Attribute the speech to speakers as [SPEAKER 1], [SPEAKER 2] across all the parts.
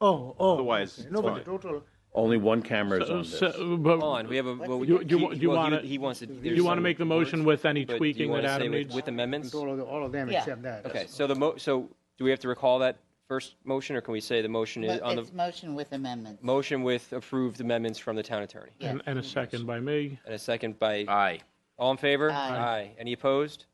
[SPEAKER 1] Oh, oh.
[SPEAKER 2] Otherwise,
[SPEAKER 1] okay. No,
[SPEAKER 2] it's
[SPEAKER 1] but the
[SPEAKER 2] fine.
[SPEAKER 1] total,
[SPEAKER 2] Only one camera is
[SPEAKER 3] So-
[SPEAKER 2] on this.
[SPEAKER 3] so- but
[SPEAKER 4] on. We have a. Well,
[SPEAKER 3] You- you-
[SPEAKER 4] he-
[SPEAKER 3] you
[SPEAKER 4] well,
[SPEAKER 3] wanna-
[SPEAKER 4] he, he wants to.
[SPEAKER 3] You want to make the motion with any tweaking that Adam
[SPEAKER 4] with,
[SPEAKER 3] needs?
[SPEAKER 4] with amendments.
[SPEAKER 1] all of, the- all of them
[SPEAKER 5] Yeah.
[SPEAKER 1] except that.
[SPEAKER 4] Okay. So the mo. So do we have to recall that first motion, or can we say the motion is
[SPEAKER 5] Mo-
[SPEAKER 4] on the
[SPEAKER 5] It's motion with amendments.
[SPEAKER 4] motion with approved amendments from the town attorney,
[SPEAKER 5] Yeah.
[SPEAKER 3] And and a second by me.
[SPEAKER 4] and a second by
[SPEAKER 2] Aye.
[SPEAKER 4] all in favor.
[SPEAKER 5] Aye.
[SPEAKER 4] Any opposed?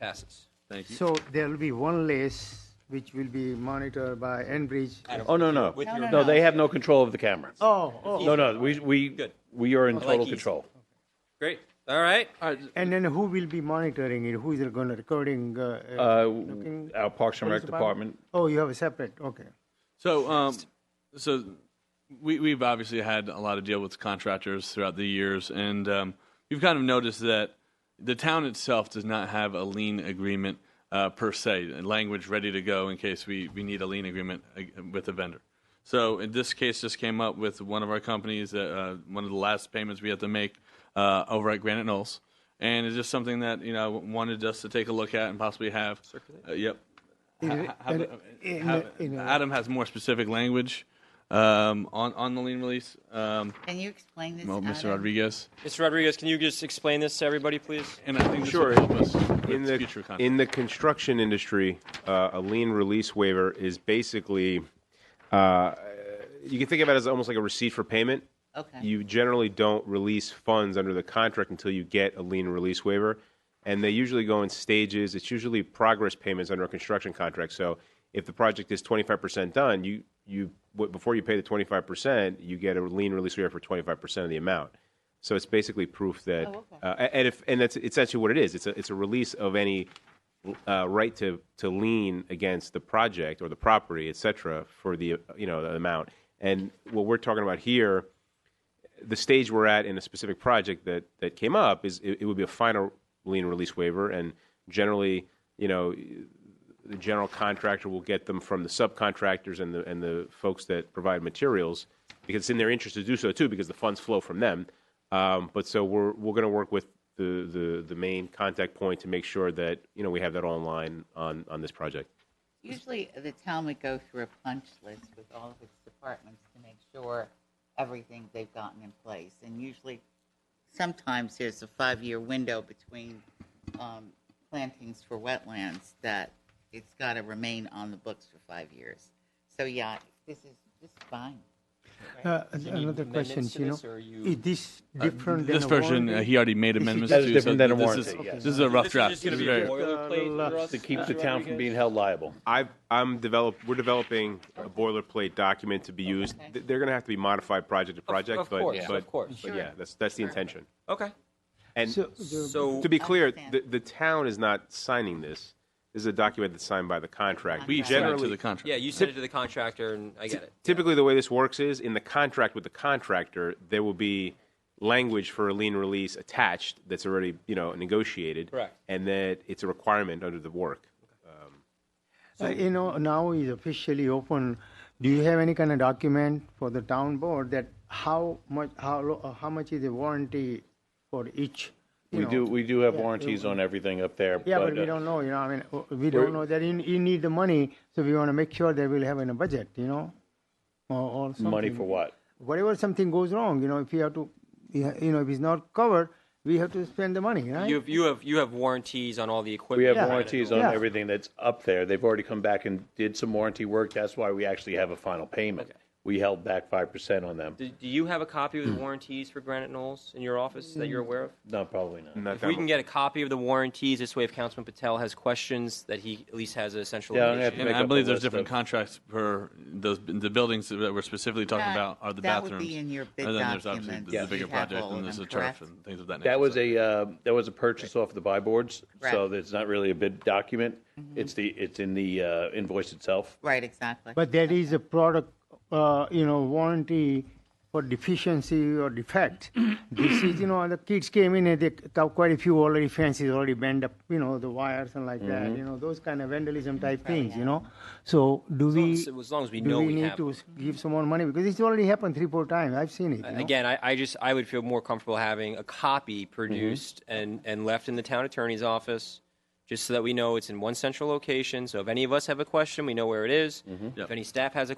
[SPEAKER 4] Passes.
[SPEAKER 2] Thank you.
[SPEAKER 1] So there'll be one list which will be monitored by Enbridge.
[SPEAKER 2] Oh, no, no.
[SPEAKER 4] With
[SPEAKER 5] No,
[SPEAKER 4] your
[SPEAKER 5] no,
[SPEAKER 2] No, they have no control of the camera.
[SPEAKER 1] Oh, oh.
[SPEAKER 2] No, no, we, we,
[SPEAKER 4] Good.
[SPEAKER 2] we are in
[SPEAKER 4] I like
[SPEAKER 2] total
[SPEAKER 4] ease.
[SPEAKER 2] control.
[SPEAKER 4] great. All right.
[SPEAKER 1] And then who will be monitoring it? Who is going to recording? uh, uh,
[SPEAKER 2] Uh,
[SPEAKER 1] looking-
[SPEAKER 2] our Parks and
[SPEAKER 1] Police
[SPEAKER 2] Rec department,
[SPEAKER 1] Oh, you have a separate, okay.
[SPEAKER 6] So, um, so we, we've obviously had a lot of deal with contractors throughout the years, and um, you've kind of noticed that the town itself does not have a lien agreement uh, per se, a language ready to go in case we, we need a lien agreement uh, with a vendor. So in this case, just came up with one of our companies, uh, uh, one of the last payments we had to make uh, over at Granite Knolls. And it's just something that, you know, wanted us to take a look at and possibly have. Uh, yep. Ha- ha-
[SPEAKER 1] in-
[SPEAKER 6] have-
[SPEAKER 1] in-
[SPEAKER 6] have-
[SPEAKER 1] in-
[SPEAKER 6] Adam has more specific language um, on, on the lien release, um,
[SPEAKER 5] Can you explain this?
[SPEAKER 6] well, Mr.
[SPEAKER 5] Adam?
[SPEAKER 6] Rodriguez.
[SPEAKER 4] Mr. Rodriguez, can you just explain this to everybody, please?
[SPEAKER 6] And I think this
[SPEAKER 2] Sure.
[SPEAKER 6] will help us
[SPEAKER 2] in
[SPEAKER 6] with
[SPEAKER 2] the
[SPEAKER 6] future contracts.
[SPEAKER 2] in the construction industry, uh, a lien release waiver is basically uh, you can think of it as almost like a receipt for payment.
[SPEAKER 5] Okay.
[SPEAKER 2] You generally don't release funds under the contract until you get a lien release waiver, and they usually go in stages. It's usually progress payments under a construction contract. So if the project is twenty five percent done, you you w- before you pay the twenty five percent, you get a lien release waiver for twenty five percent of the amount. So it's basically proof that
[SPEAKER 5] Oh, okay.
[SPEAKER 2] uh, and if and that's it's actually what it is. It's a it's a release of any uh, right to to lien against the project or the property, et cetera, for the you know the amount. And what we're talking about here, the stage we're at in a specific project that that came up is it, it would be a final lien release waiver, and generally, you know, the general contractor will get them from the subcontractors and the and the folks that provide materials because it's in their interest to do so too because the funds flow from them. Um, but so we're we're going to work with the, the the main contact point to make sure that you know we have that all in line on on this project.
[SPEAKER 5] Usually, the town would go through a punch list with all of its departments to make sure everything they've gotten in place. And usually, sometimes there's a five-year window between um, plantings for wetlands that it's got to remain on the books for five years. So yeah, this is, this is fine.
[SPEAKER 1] Uh,
[SPEAKER 4] you need
[SPEAKER 1] Another
[SPEAKER 4] amendments
[SPEAKER 1] question,
[SPEAKER 4] to
[SPEAKER 1] you
[SPEAKER 4] this, or
[SPEAKER 1] know,
[SPEAKER 4] are you-
[SPEAKER 1] is this different than
[SPEAKER 6] Uh, this
[SPEAKER 1] a
[SPEAKER 6] version, uh,
[SPEAKER 1] warranty?
[SPEAKER 6] he already made amendments
[SPEAKER 2] That is
[SPEAKER 6] to.
[SPEAKER 2] different than a
[SPEAKER 6] this
[SPEAKER 2] warranty,
[SPEAKER 6] Is,
[SPEAKER 2] yes.
[SPEAKER 6] This is a rough
[SPEAKER 4] This is
[SPEAKER 6] draft.
[SPEAKER 4] just gonna
[SPEAKER 6] This
[SPEAKER 4] be
[SPEAKER 6] is
[SPEAKER 4] a
[SPEAKER 6] very-
[SPEAKER 4] boilerplate
[SPEAKER 1] Uh,
[SPEAKER 4] for us,
[SPEAKER 1] to
[SPEAKER 2] keep
[SPEAKER 4] Mr.
[SPEAKER 2] the town
[SPEAKER 4] Rodriguez?
[SPEAKER 2] from being held liable. I've, I'm develop. We're developing a boilerplate document to be used.
[SPEAKER 5] Okay.
[SPEAKER 2] Th- They're going to have to be modified project to project,
[SPEAKER 4] of
[SPEAKER 2] but
[SPEAKER 4] course,
[SPEAKER 2] but
[SPEAKER 4] of course.
[SPEAKER 2] but yeah, that's that's the intention.
[SPEAKER 4] Okay.
[SPEAKER 2] And
[SPEAKER 1] So the-
[SPEAKER 4] So
[SPEAKER 2] to be clear,
[SPEAKER 5] Understand.
[SPEAKER 2] the, the town is not signing this. This is a document that's signed by the contract.
[SPEAKER 6] We
[SPEAKER 5] Contract.
[SPEAKER 6] generally to
[SPEAKER 2] generally,
[SPEAKER 6] the contract.
[SPEAKER 4] yeah, you sent it to the contractor, and I get it.
[SPEAKER 2] typically the way this works is in the contract with the contractor, there will be language for a lien release attached that's already you know negotiated,
[SPEAKER 4] Correct.
[SPEAKER 2] And that it's a requirement under the work.
[SPEAKER 1] Uh, You know, now is officially open. Do you have any kind of document for the town board that how much, how, lo- uh, how much is the warranty for each? you
[SPEAKER 2] We
[SPEAKER 1] know?
[SPEAKER 2] do we do have warranties on everything up there.
[SPEAKER 1] Yeah, but
[SPEAKER 2] uh,
[SPEAKER 1] we don't know, you know, I mean, uh, we don't know that you, you need the money, so we want to make sure that we'll have in a budget, you know? Or, or something.
[SPEAKER 2] money for what?
[SPEAKER 1] Whatever something goes wrong, you know, if you have to, you you know, if it's not covered, we have to spend the money, right?
[SPEAKER 4] You have, you have you have warranties on all the equipment.
[SPEAKER 2] We have
[SPEAKER 1] Yeah.
[SPEAKER 2] warranties on
[SPEAKER 1] Yeah.
[SPEAKER 2] everything that's up there. They've already come back and did some warranty work. That's why we actually have a final payment. We held back five percent on them.
[SPEAKER 4] Do, do you have a copy of the warranties for Granite Knolls in your office that you're aware of?
[SPEAKER 2] No, probably not.
[SPEAKER 4] If we can get a copy of the warranties, this way, if Councilman Patel has questions, that he at least has a central.
[SPEAKER 2] Yeah, I'm
[SPEAKER 4] location.
[SPEAKER 2] gonna have to
[SPEAKER 6] And
[SPEAKER 2] make
[SPEAKER 6] I
[SPEAKER 2] up a
[SPEAKER 6] believe there's
[SPEAKER 2] list
[SPEAKER 6] different
[SPEAKER 2] of-
[SPEAKER 6] contracts per those the buildings that we're specifically talking
[SPEAKER 5] That-
[SPEAKER 6] about are the
[SPEAKER 5] that would
[SPEAKER 6] bathrooms.
[SPEAKER 5] be in your bid
[SPEAKER 6] and then there's obviously
[SPEAKER 5] documents.
[SPEAKER 6] the, the
[SPEAKER 5] Yes.
[SPEAKER 6] bigger
[SPEAKER 5] You'd have
[SPEAKER 6] project,
[SPEAKER 5] all of
[SPEAKER 6] and there's
[SPEAKER 5] them,
[SPEAKER 6] the turf
[SPEAKER 5] correct?
[SPEAKER 6] and things of that nature.
[SPEAKER 7] That was
[SPEAKER 6] so-
[SPEAKER 7] a, uh, that was a purchase off of the buy boards, so
[SPEAKER 5] Correct.
[SPEAKER 7] it's not really a bid document. It's the, it's in the uh, invoice itself.
[SPEAKER 5] Right, exactly.
[SPEAKER 1] But that is a product, uh, you know, warranty for deficiency or defect. This is, you know, the kids came in and they got quite a few already fences already bent up, you know, the wires and like that,
[SPEAKER 4] Mm-hmm.
[SPEAKER 1] you know, those kind of vandalism type things, you know. So do
[SPEAKER 4] long
[SPEAKER 1] we?
[SPEAKER 4] as- as long as we
[SPEAKER 1] do
[SPEAKER 4] know we
[SPEAKER 1] need
[SPEAKER 4] have
[SPEAKER 1] to s- give some more money because it's already happened three, four times. I've seen it. you know.
[SPEAKER 4] Again, I, I just I would feel more comfortable having a copy
[SPEAKER 2] Mm-hmm.
[SPEAKER 4] produced and and left in the town attorney's office, just so that we know it's in one central location. So if any of us have a question, we know where it is. If
[SPEAKER 2] Mm-hmm.
[SPEAKER 6] Yep.
[SPEAKER 4] any staff has a